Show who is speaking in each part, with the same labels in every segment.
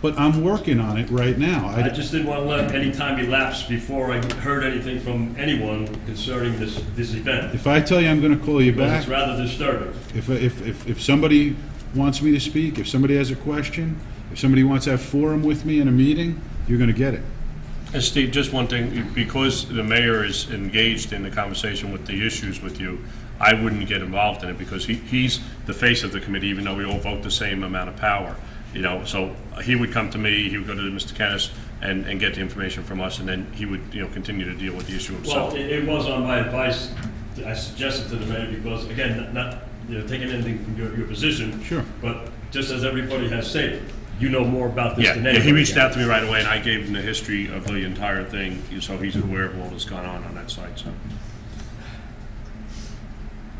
Speaker 1: but I'm working on it right now.
Speaker 2: I
Speaker 1: I,
Speaker 2: just didn't want to let any time elapse before I heard anything from anyone concerning this, this event.
Speaker 1: if I tell you I'm going to call you
Speaker 2: Because
Speaker 1: back,
Speaker 2: it's rather disturbing.
Speaker 1: if, if, if, if somebody wants me to speak, if somebody has a question, if somebody wants to have forum with me in a meeting, you're going to get it.
Speaker 3: And Steve, just one thing, because the mayor is engaged in the conversation with the issues with you, I wouldn't get involved in it because he, he's the face of the committee, even though we all vote the same amount of power. You know, so he would come to me, he would go to Mr. Kennis and, and get the information from us, and then he would, you know, continue to deal with the issue
Speaker 2: Well,
Speaker 3: himself.
Speaker 2: it, it was on my advice, I suggested to the mayor, because again, not- not, you know, taking anything from your, your position.
Speaker 1: Sure.
Speaker 2: But just as everybody has stated, you know more about this
Speaker 3: Yeah,
Speaker 2: than
Speaker 3: yeah,
Speaker 2: anybody.
Speaker 3: he reached out to me right away and I gave him the history of the entire thing, so he's aware of all that's gone on on that side, so.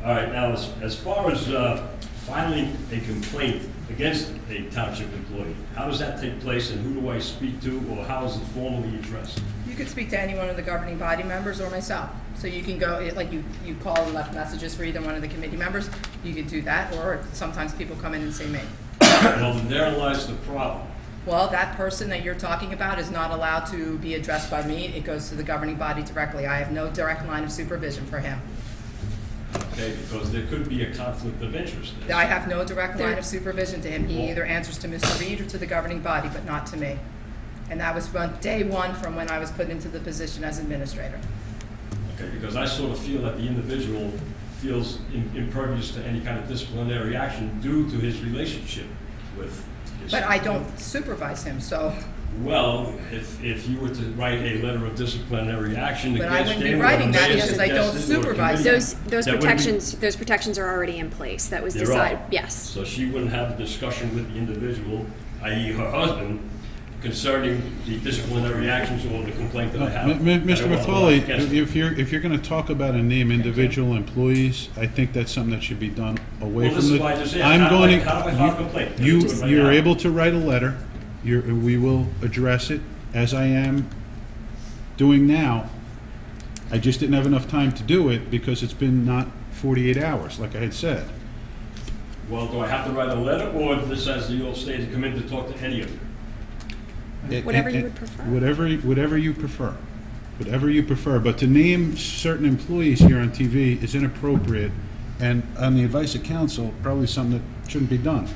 Speaker 2: All right, now, as, as far as uh, filing a complaint against a township employee, how does that take place and who do I speak to or how is it formally addressed?
Speaker 4: You could speak to any one of the governing body members or myself. So you can go, it- like, you, you call and left messages for either one of the committee members. You could do that, or sometimes people come in and say me.
Speaker 2: Well, then there lies the problem.
Speaker 4: Well, that person that you're talking about is not allowed to be addressed by me. It goes to the governing body directly. I have no direct line of supervision for him.
Speaker 2: Okay, because there could be a conflict of interest. there.
Speaker 4: I have no direct line of supervision to him. He either answers to Mr. Reed or to the governing body, but not to me. And that was from day one from when I was put into the position as administrator.
Speaker 2: Okay, because I sort of feel that the individual feels im- impervious to any kind of disciplinary action due to his relationship with his...
Speaker 4: But I don't supervise him, so,
Speaker 2: Well, if, if you were to write a letter of disciplinary action
Speaker 4: But I
Speaker 2: against
Speaker 4: wouldn't be
Speaker 2: Damon...
Speaker 4: writing that
Speaker 2: Mayor
Speaker 4: because I don't
Speaker 2: suggested or a
Speaker 4: supervise
Speaker 2: committee-
Speaker 5: Those, those
Speaker 2: that wouldn't be-
Speaker 5: protections, those protections are already in place. That was
Speaker 2: They're
Speaker 5: decided,
Speaker 2: all.
Speaker 5: yes.
Speaker 2: So she wouldn't have a discussion with the individual, i.e. her husband, concerning the disciplinary actions or the complaint
Speaker 3: Uh,
Speaker 2: that I have.
Speaker 1: M- M-
Speaker 2: that I
Speaker 1: Mr.
Speaker 2: want to
Speaker 1: Matholi,
Speaker 2: lodge against
Speaker 1: if you're, if you're going to talk about and name individual employees, I think that's something that should be done away
Speaker 2: Well, this
Speaker 1: from
Speaker 2: is
Speaker 1: the.
Speaker 2: why I just asked,
Speaker 1: I'm
Speaker 2: how do I-
Speaker 1: going to-
Speaker 2: how do I file a complaint?
Speaker 1: You,
Speaker 2: Just right
Speaker 1: you're
Speaker 2: now.
Speaker 1: able to write a letter, you're, we will address it as I am doing now. I just didn't have enough time to do it because it's been not 48 hours, like I had said.
Speaker 2: Well, do I have to write a letter, or this has the old stated, come in to talk to any of you?
Speaker 1: It-
Speaker 5: Whatever
Speaker 1: it-
Speaker 5: you
Speaker 1: it-
Speaker 5: would prefer.
Speaker 1: Whatever, whatever you prefer, whatever you prefer, but to name certain employees here on TV is inappropriate, and on the advice of council, probably something that shouldn't be done.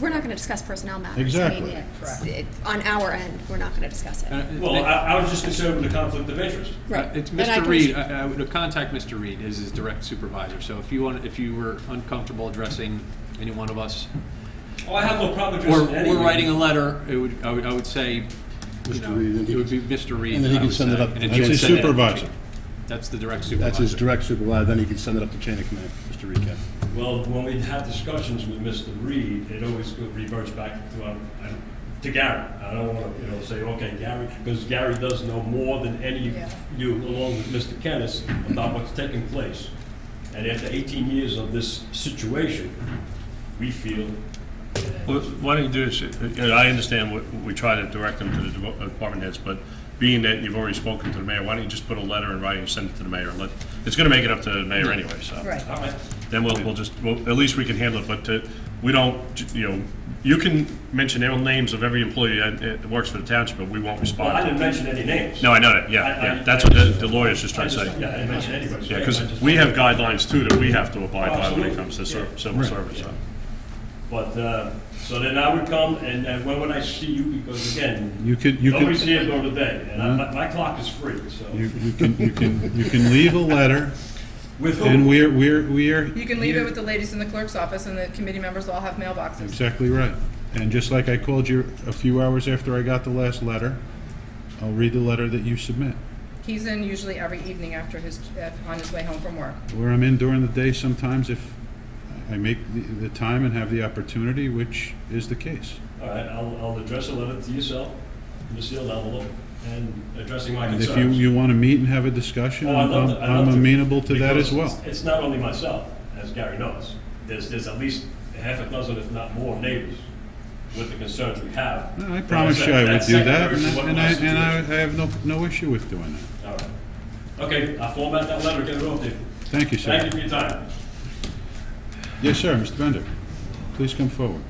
Speaker 5: We're not going to discuss personnel matters. I mean,
Speaker 1: Exactly.
Speaker 5: it's-
Speaker 4: Correct.
Speaker 5: it- On our end, we're not going to discuss it.
Speaker 2: Well, I, I was just concerned with the conflict of interest.
Speaker 5: Right.
Speaker 6: Uh, It's
Speaker 5: And I
Speaker 6: Mr.
Speaker 5: can-
Speaker 6: Reed, I I would contact Mr. Reed as his direct supervisor, so if you want, if you were uncomfortable addressing any one of us,
Speaker 2: Oh, I have no problem
Speaker 6: or,
Speaker 2: addressing any
Speaker 6: or
Speaker 2: of you.
Speaker 6: writing a letter, it would, I would, I would say, you know,
Speaker 7: Reed, and he
Speaker 6: it would be Mr. Reed.
Speaker 7: and then he
Speaker 6: I
Speaker 7: can
Speaker 6: would
Speaker 7: send it
Speaker 6: say,
Speaker 7: up to
Speaker 6: and if
Speaker 7: the
Speaker 6: you would
Speaker 1: That's his
Speaker 6: send it-
Speaker 1: supervisor.
Speaker 6: That's the direct supervisor.
Speaker 7: That's his direct supervisor, then he can send it up to chain of command, Mr. Recap.
Speaker 2: Well, when we have discussions with Mr. Reed, it always go- reverts back to, um, I- to Gary. I don't want to, you know, say, okay, Gary, because Gary does know more than any of
Speaker 4: Yeah.
Speaker 2: you, along with Mr. Kennis, about what's taking place. And after 18 years of this situation, we feel
Speaker 3: Well, Why don't you do this, you know, I understand what, we try to direct them to the devo- uh, department heads, but being that you've already spoken to the mayor, why don't you just put a letter in writing and send it to the mayor? and Let, it's gonna make it up to the mayor anyway, so.
Speaker 4: right.
Speaker 2: All right.
Speaker 3: Then we'll, we'll just, well, at least we can handle it, but uh, we don't, j- you know, you can mention all names of every employee that that works for the township, but we won't
Speaker 2: Well, I
Speaker 3: respond.
Speaker 2: didn't mention any names.
Speaker 3: No, I know that, yeah,
Speaker 2: I- I-
Speaker 3: yeah, that's what the the lawyer's just
Speaker 2: I
Speaker 3: trying to
Speaker 2: just,
Speaker 3: say.
Speaker 2: yeah, I didn't mention anybody.
Speaker 3: Yeah, because we have guidelines too that we have to abide by when
Speaker 2: Oh, Absolutely.
Speaker 3: it comes to
Speaker 2: Yeah.
Speaker 3: cer- civil service, so.
Speaker 2: But, uh, so then I would come, and, and when would I see you? Because again,
Speaker 1: You could, you could,
Speaker 2: nobody's here during the day, and I- my, my clock is free, so.
Speaker 1: you you can, you can, you can leave a letter,
Speaker 2: With
Speaker 1: and
Speaker 2: whom?
Speaker 1: we're, we're, we're.
Speaker 4: You can leave it with the ladies in the clerk's office, and the committee members all have mailboxes.
Speaker 1: Exactly right. And just like I called you a few hours after I got the last letter, I'll read the letter that you submit.
Speaker 4: He's in usually every evening after his, uh, on his way home from work.
Speaker 1: where I'm in during the day sometimes if I make the, the time and have the opportunity, which is the case.
Speaker 2: All right, I'll, I'll address a letter to yourself, in a sealed envelope, and addressing my
Speaker 1: And if you,
Speaker 2: concerns.
Speaker 1: you want to meet and have a discussion,
Speaker 2: Oh, I'd
Speaker 1: I'm,
Speaker 2: love to- I'd love
Speaker 1: I'm amenable to that
Speaker 2: because
Speaker 1: as well.
Speaker 2: it's- It's not only myself, as Gary knows. There's, there's at least half a dozen, if not more, neighbors with the concerns we have.
Speaker 1: No, I
Speaker 2: Like
Speaker 1: promise
Speaker 2: said,
Speaker 1: you I would
Speaker 2: that's
Speaker 1: do that, and
Speaker 2: secondary to
Speaker 1: I-
Speaker 2: what
Speaker 1: and
Speaker 2: my
Speaker 1: I, and I
Speaker 2: situation-
Speaker 1: I have no, no issue with doing that.
Speaker 2: All right. Okay, I'll format that letter, get it off there.
Speaker 1: Thank you,
Speaker 2: Thank you
Speaker 1: sir.
Speaker 2: for your time.
Speaker 1: Yes, sir, Mr. Bender, please come forward.